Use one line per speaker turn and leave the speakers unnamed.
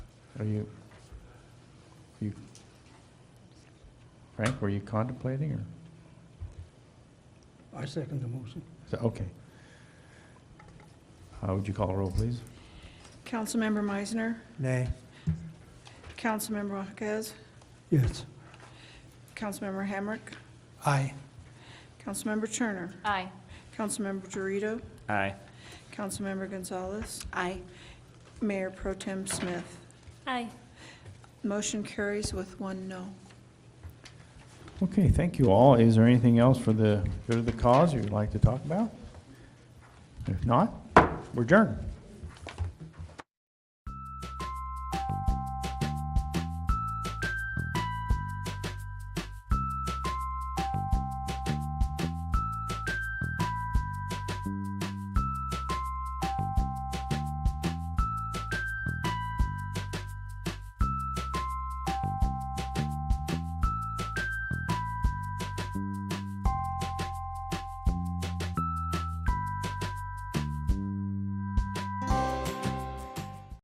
Are you, you, Frank, were you contemplating, or,
I second the motion.
so, okay. Uh, Would you call a roll, please?
Councilmember Meisner,
Nay.
Councilmember Jaquez,
Yes.
Councilmember Hamrick,
Aye.
Councilmember Turner,
Aye.
Councilmember Dorito,
Aye.
Councilmember Gonzalez,
Aye.
Mayor Pro Tem Smith.
Aye.
Motion carries with one no.
Okay, thank you all. Is there anything else for the good of the cause you'd like to talk about? If not, we're adjourned.